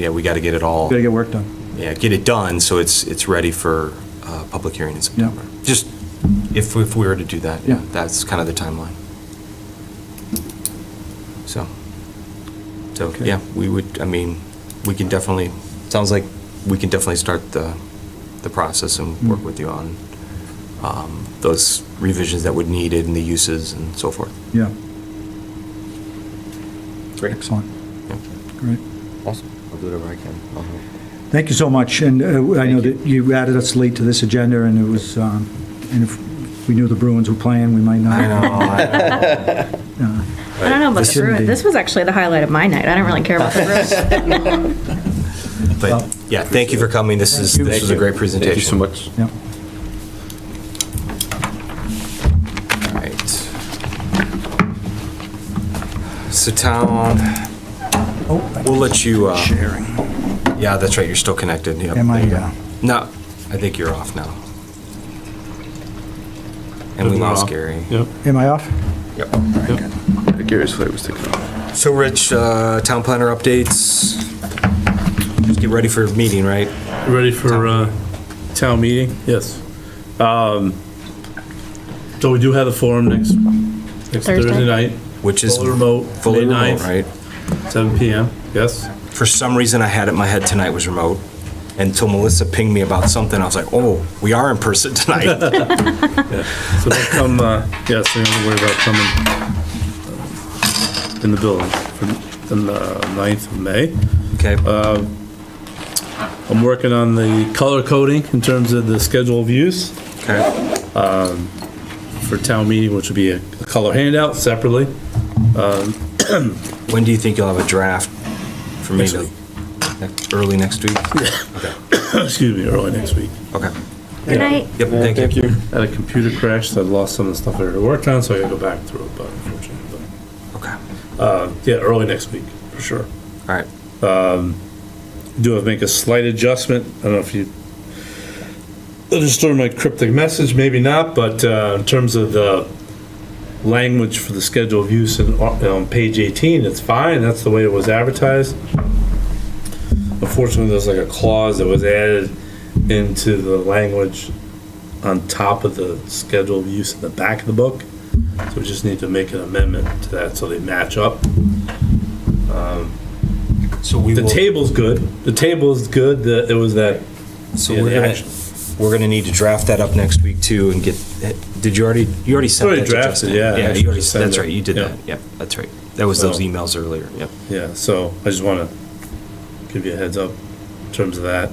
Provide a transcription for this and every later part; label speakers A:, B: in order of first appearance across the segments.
A: yeah, we got to get it all,
B: Gotta get work done.
A: yeah, get it done so it's, it's ready for uh, public hearing in September. Just if, if we were to do that, yeah,
B: Yeah.
A: that's kind of the timeline. So, so,
B: Okay.
A: yeah, we would, I mean, we can definitely, sounds like we can definitely start the, the process and work
B: Mm.
A: with you on um, those revisions that would need it and the uses and so forth.
B: Yeah,
A: Great.
B: excellent.
A: Yeah.
B: Great.
A: Awesome. I'll do whatever I can. I'll help.
B: Thank you so much, and uh, I know
A: Thank you.
B: that you added us late to this agenda, and it was, um, and if we knew the Bruins were playing, we might not. uh,
C: I don't know about
B: This
C: the
B: shouldn't be.
C: Bruins. This was actually the highlight of my night. I don't really care about the Bruins.
A: But, yeah, thank you for coming. This is, this was a great presentation.
D: Thank you so much.
B: Yeah.
A: All right. So town, we'll let you, uh,
B: Oh, Sharing.
A: yeah, that's right, you're still connected. Yep,
B: Am I,
A: there you go.
B: uh,
A: No, I think you're off now. And we lost Gary.
D: Yep.
B: Am I off?
A: Yep.
D: Gary's flight was taken off.
A: So Rich, uh, town planner updates. Just get ready for meeting, right?
E: Ready for uh, town meeting? Yes. Um, So we do have the forum next, next
C: Thursday?
E: Thursday night,
A: Which is
E: fully remote,
A: fully
E: May
A: remote,
E: 9th,
A: right?
E: 7 PM, yes?
A: For some reason, I had it in my head tonight was remote. Until Melissa pinged me about something, I was like, oh, we are in person tonight.
E: So don't come, uh, yes, we don't worry about coming uh, in the building for the 9th of May.
A: Okay,
E: I'm working on the color coding in terms of the schedule of use
A: okay.
E: for town meeting, which would be a color handout separately.
A: When do you think you'll have a draft for me?
E: Next week.
A: Next- Early next week?
E: Excuse me, early next week.
A: Okay.
C: Good night.
A: Yep, thank you.
E: had a computer crash, so I lost some of the stuff I already worked on, so I gotta go back through it, but unfortunately,
A: Okay, all
E: but, uh, yeah, early next week, for sure.
A: right.
E: Do I make a slight adjustment? I don't know if you understood my cryptic message, maybe not, but, uh, in terms of the language for the schedule of use in, uh, on page eighteen, it's fine, that's the way it was advertised. Unfortunately, there's like a clause that was added into the language on top of the schedule of use in the back of the book. So we just need to make an amendment to that so they match up.
A: So we
E: The
A: will,
E: table's good. The table is good. The, it was that.
A: so
E: yeah,
A: we're
E: the
A: gonna,
E: action.
A: we're gonna need to draft that up next week too and get, did you already, you already sent
E: Already
A: that to
E: drafted,
A: Justin?
E: yeah, I
A: Yeah,
E: actually
A: you already,
E: sent
A: that's
E: it.
A: right, you did
E: Yeah.
A: that. Yep, that's right. That was those
E: So-
A: emails earlier, yep.
E: Yeah. So I just want to give you a heads up in terms of that.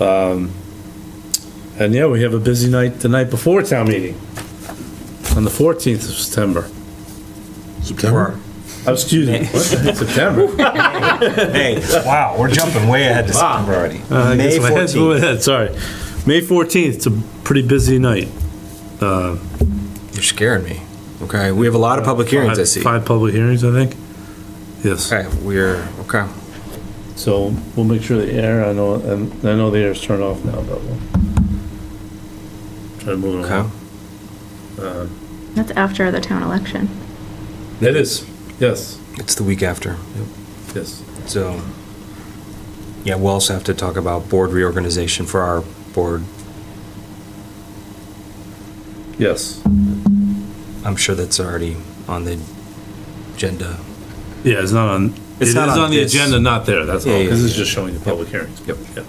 E: Um, and yeah, we have a busy night the night before town meeting on the 14th of September.
D: September?
E: Oh, excuse me. What the heck, September.
A: Hey, wow, we're jumping way ahead to September already.
E: Uh, I guess
A: May
E: my head's moving
A: 14th.
E: ahead, Sorry. May 14th. It's a pretty busy night.
A: You're scaring me. Okay, we have a lot of public hearings, I
E: Five-
A: see.
E: Five public hearings, I think. Yes.
A: Okay, we're, okay.
E: So we'll make sure the air, I know, and I know the air's turned off now, but we'll try to move it
A: Okay.
E: along.
C: That's after the town election.
E: It is, yes,
A: It's the week after. Yep.
E: yes.
A: So, yeah, we'll also have to talk about board reorganization for our board.
E: Yes.
A: I'm sure that's already on the agenda.
E: Yeah, it's not on, it
A: It's
E: is
A: not on
E: on the
A: this.
E: agenda, not there, that's all,
A: Yeah, yeah,
E: because it's
A: yeah.
E: just showing the public hearings.
A: Yep.
E: Yeah.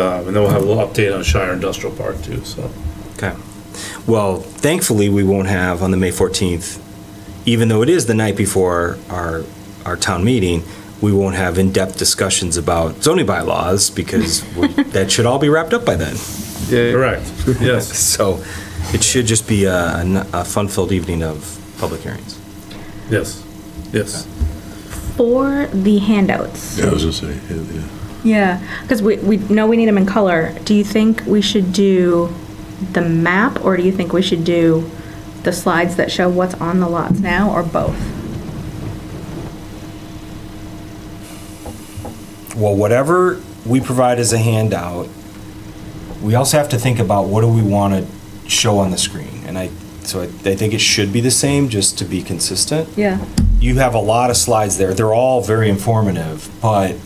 E: Um, And then we'll have a little update on Shire Industrial Park too, so.
A: Okay. Well, thankfully, we won't have on the May 14th, even though it is the night before our, our town meeting, we won't have in-depth discussions about zoning bylaws because we- that should all be wrapped up by then.
E: Correct, yes.
A: So it should just be a, a fun-filled evening of public hearings.
E: Yes, yes.
C: For the handouts.
D: Yeah, I was gonna say, yeah.
C: Yeah. Because we, we know we need them in color. Do you think we should do the map or do you think we should do the slides that show what's on the lots now or both?
A: well, whatever we provide as a handout, we also have to think about what do we want to show on the screen. And I, so I, I think it should be the same, just to be consistent.
C: Yeah.
A: You have a lot of slides there. They're all very informative, but